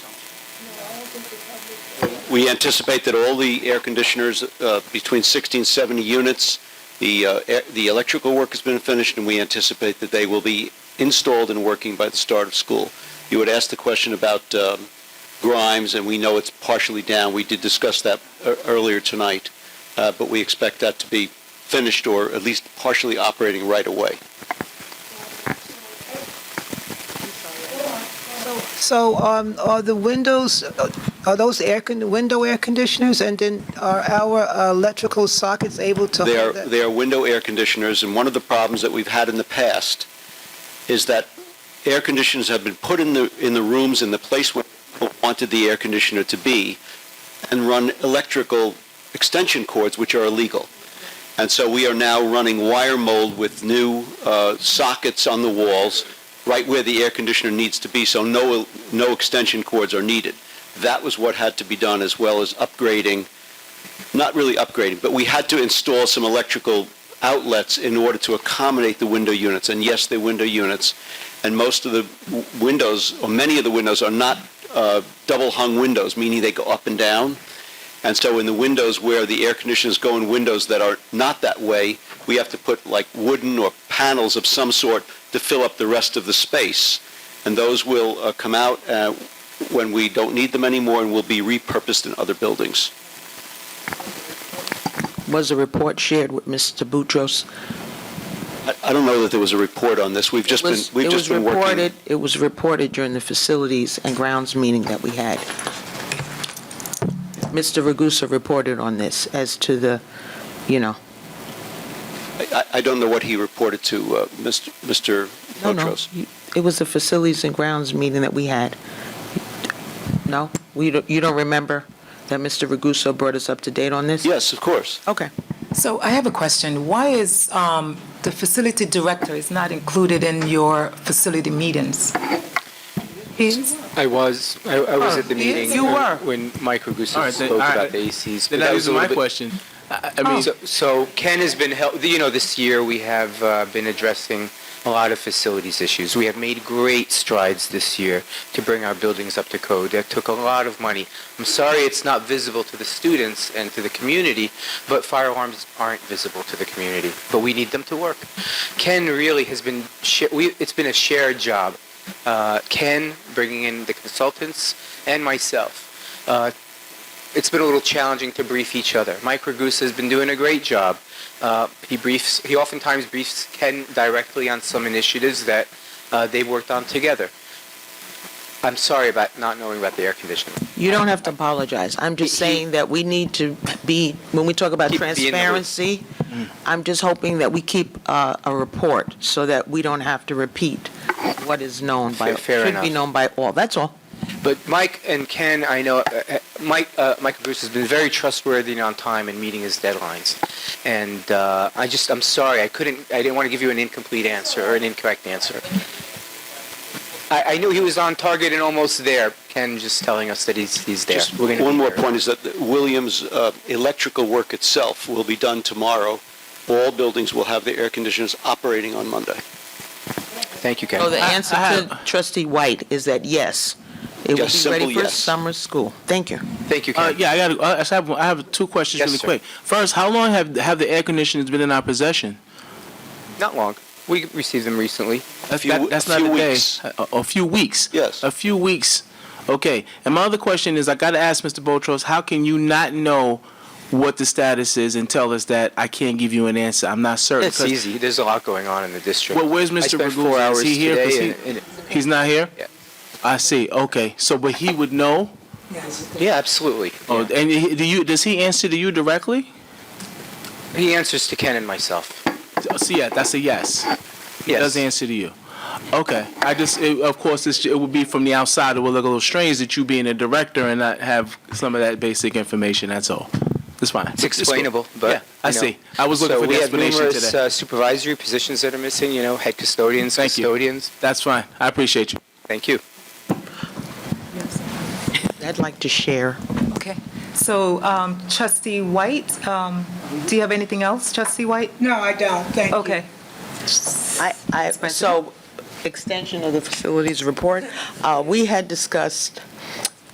We anticipate that all the air conditioners, uh, between 60 and 70 units, the, uh, air- the electrical work has been finished, and we anticipate that they will be installed and working by the start of school. You had asked the question about um, Grimes, and we know it's partially down. We did discuss that e- earlier tonight, uh, but we expect that to be finished or at least partially operating right away. So um, are the windows, uh, are those air, con- window air conditioners, and then are our uh, electrical sockets able to They are, hold that? they are window air conditioners, and one of the problems that we've had in the past is that air conditioners have been put in the, in the rooms in the place where people wanted the air conditioner to be, and run electrical extension cords, which are illegal. And so we are now running wire mold with new uh, sockets on the walls, right where the air conditioner needs to be, so no, no extension cords are needed. That was what had to be done, as well as upgrading not really upgrading, but we had to install some electrical outlets in order to accommodate the window units. And yes, they're window units. And most of the w- windows, or many of the windows, are not uh, double-hung windows, meaning they go up and down. And so in the windows where the air conditioners go in windows that are not that way, we have to put like wooden or panels of some sort to fill up the rest of the space. And those will uh, come out uh, when we don't need them anymore and will be repurposed in other buildings. Was a report shared with Mr. Boutros? I- I don't know that there was a report on this. We've just It been, was- we've just been It was working. reported, it was reported during the facilities and grounds meeting that we had. Mr. Ragusa reported on this as to the, you know, I- I I don't know what he reported to uh, Mr. Mr. no, no. Montrose. you- It was the facilities and grounds meeting that we had. No? We, don't- you don't remember that Mr. Ragusa brought us up to date on this? Yes, of course. Okay. So I have a question. Why is um, the facility director is not included in your facility meetings? He's, I was, I, I was Oh, at the he is? meeting. You when- were. When Mike Ragusa All right, then- spoke all right. about the ACs. but Then that was was a my little bit- question. I I mean, So, so Ken has been help, you know, this year we have uh, been addressing a lot of facilities issues. We have made great strides this year to bring our buildings up to code. That took a lot of money. I'm sorry it's not visible to the students and to the community, but fire alarms aren't visible to the community, but we need them to work. Ken really has been, sha- we, it's been a shared job. Uh, Ken, bringing in the consultants, and myself, uh, it's been a little challenging to brief each other. Mike Ragusa has been doing a great job. Uh, he briefs, he oftentimes briefs Ken directly on some initiatives that uh, they worked on together. I'm sorry about not knowing about the air conditioning. You don't have to apologize. I'm just He- he- saying that we need to be, when we talk about Keep being the lead. transparency, I'm just hoping that we keep uh, a report so that we don't have to repeat what is known by, Fair- fair should be enough. known by all. That's all. But Mike and Ken, I know, uh, uh, Mike, uh, Mike Ragusa has been very trustworthy and on time in meeting his deadlines. And uh, I just, I'm sorry, I couldn't, I didn't want to give you an incomplete answer or an incorrect answer. I, I knew he was on target and almost there. Ken just telling us that he's, he's there. Just We're gonna one be more there. point is that the Williams' uh, electrical work itself will be done tomorrow. All buildings will have their air conditioners operating on Monday. Thank you, Ken. So the I- answer I to trustee White is that yes, it will Yes, be simple ready for yes. summer school. Thank you. Thank you, Ken. uh, yeah, I got. Uh, I have. I have two questions Yes, really sir. quick. First, how long have have the air conditioners been in our possession? Not long. We received them recently. That's, Few- that, that's a not few a day. weeks. A, a few weeks. Yes. A few weeks. Okay. And my other question is, I got to ask Mr. Botros, how can you not know what the status is and tell us that I can't give you an answer? I'm not certain. It's 'cause- easy. There's a lot going on in the district. Well, where's I Mr. spent four Ragusa? hours Is he here? 'Cause today. he- and- and- He's not here. Yeah. I see. Okay. So, but he would know. yeah, absolutely. Oh, and he- do you? Does he answer to you directly? He answers to Ken and myself. So yeah, that's a yes. It Yes. does answer to you. Okay. I just, it, of course, it's, it would be from the outside. It would look a little strange that you being a director and not have some of that basic information. That's all. It's fine. It's explainable, cool. but yeah, I you know. see. I was looking so for we the have explanation numerous today. Uh, supervisory positions that are missing. You know, head custodians, Thank you. custodians. That's fine. I appreciate you. Thank you. I'd like to share. okay. So um, trustee White, um, do you have anything else, trustee White? No, I don't, thank you. Okay. I, I, President? so, extension of the facilities report, uh, we had discussed